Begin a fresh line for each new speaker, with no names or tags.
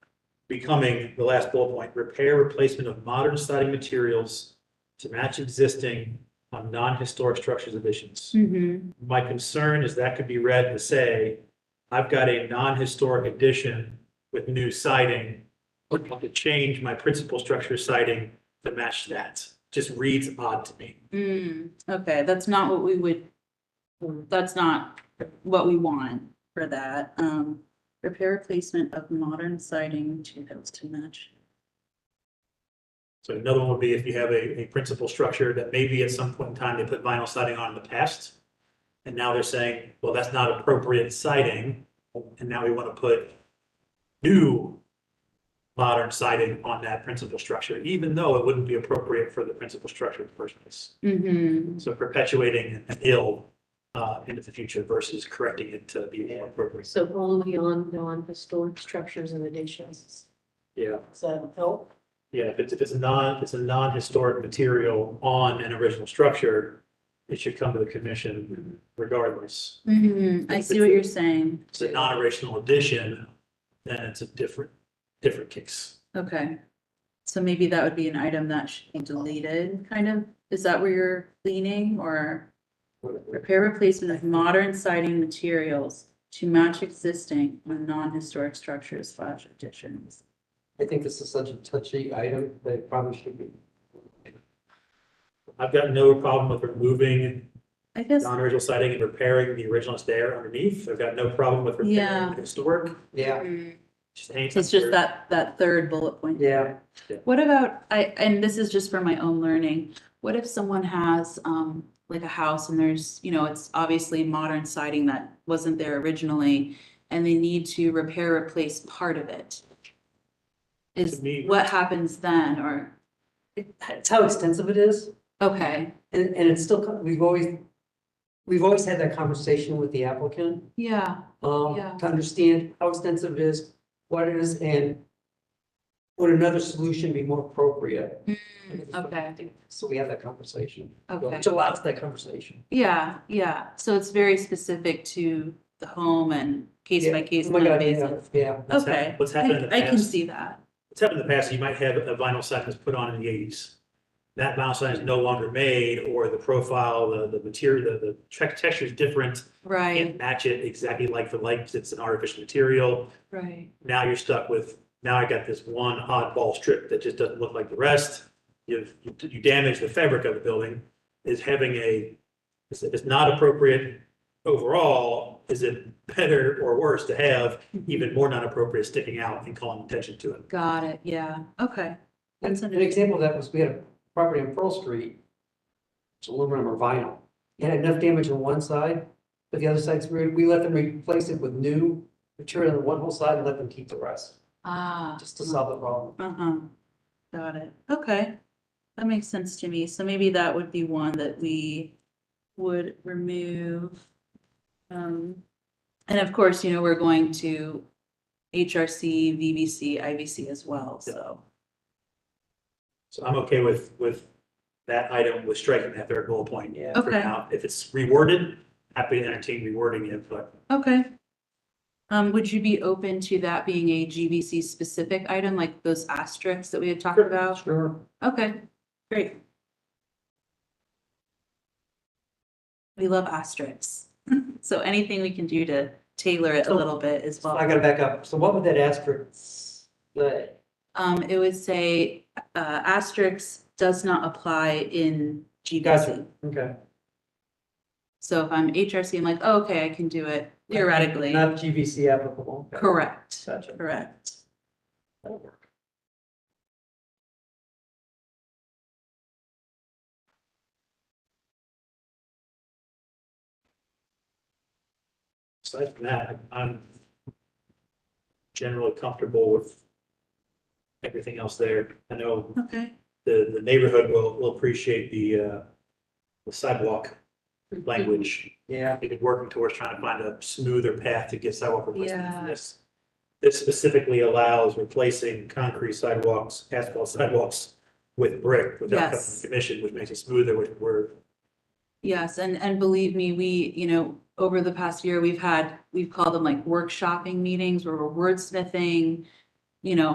becoming the last bullet point, repair replacement of modern siding materials to match existing on non-historic structures additions.
Mhm.
My concern is that could be read to say, I've got a non-historic addition with new siding. I'd like to change my principal structure siding to match that. Just reads odd to me.
Mm, okay, that's not what we would, that's not what we want for that. Um, repair replacement of modern siding to house to match.
So another one would be if you have a, a principal structure that maybe at some point in time they put vinyl siding on in the past. And now they're saying, well, that's not appropriate siding, and now we want to put new modern siding on that principal structure, even though it wouldn't be appropriate for the principal structure in the first place.
Mm-hmm.
So perpetuating an ill, uh, into the future versus correcting it to be more appropriate.
So only on non-historic structures and additions.
Yeah.
Does that help?
Yeah, if it's, if it's a non, it's a non-historic material on an original structure, it should come to the commission regardless.
Mm-hmm, I see what you're saying.
If it's a non-original addition, then it's a different, different case.
Okay. So maybe that would be an item that should be deleted, kind of? Is that where you're leaning or? Repair replacement of modern siding materials to match existing on non-historic structures slash additions.
I think this is such a touchy item that it probably should be.
I've got no problem with removing
I guess,
non-original siding and repairing the original stair underneath. I've got no problem with repairing
Yeah.
the historic.
Yeah,
mm,
Just anytime
it's just
you're-
that, that third bullet point.
yeah.
What about, I, and this is just for my own learning, what if someone has, um, like a house and there's, you know, it's obviously modern siding that wasn't there originally, and they need to repair, replace part of it? Is,
To me-
what happens then, or,
That's how extensive it is.
okay,
And, and it's still, co- we've always, we've always had that conversation with the applicant,
yeah,
um,
Yeah.
to understand how extensive it is, what it is, and would another solution be more appropriate?
okay,
So we have that conversation,
okay,
which allows that conversation.
yeah, yeah, so it's very specific to the home and case by case
Oh my God, yeah,
basis.
Yeah,
What's hap-
Okay,
What's happened in
I,
the
I
past.
can see that,
It's happened in the past, you might have a vinyl sign that's put on in the eighties. That vinyl sign is no longer made, or the profile, the, the material, the, the tech- texture is different.
right,
Can't match it exactly like for like, 'cause it's an artificial material.
right,
Now you're stuck with, now I got this one oddball strip that just doesn't look like the rest. You've, you- you damage the fabric of the building. Is having a, is it, is not appropriate overall, is it better or worse to have even more non-appropriate sticking out and calling attention to it?
got it, yeah, okay.
and
That's
an
under-
example of that was, we had a property on Pearl Street. It's aluminum or vinyl, it had enough damage on one side, but the other side's, we, we let them replace it with new material on one whole side and let them keep the rest,
Ah.
just to solve the problem.
Uh-huh, got it, okay. That makes sense to me, so maybe that would be one that we would remove. Um, and of course, you know, we're going to HRC, VBC, IVC as well, so.
So I'm okay with, with that item, with striking that third bullet point.
Yeah.
for
Okay.
now. If it's reworded, happy to entertain rewording it, but
Okay. Um, would you be open to that being a GBC specific item, like those asterisks that we had talked about?
Sure.
Okay, great. We love asterisks, so anything we can do to tailor it a little bit is
So I
well.
gotta back up. So what would that asterisk say?
Um, it would say, uh, asterisks does not apply in GBC.
Gotcha. Okay.
So if I'm HRC, I'm like, "Oh, okay, I can do it theoretically.
Not GVC applicable. Okay.
Correct,
Gotcha.
correct.
That'll work.
aside from that, I'm generally comfortable with everything else there. I know
Okay,
the, the neighborhood will, will appreciate the, uh, the sidewalk language.
Yeah,
They've been working towards trying to find a smoother path to get sidewalk replacement
Yeah.
for this. This specifically allows replacing concrete sidewalks, asphalt sidewalks with brick without coming
Yes.
to commission, which makes it smoother, which we're,
yes, and, and believe me, we, you know, over the past year, we've had, we've called them like workshopping meetings where we're wordsmithing, you know,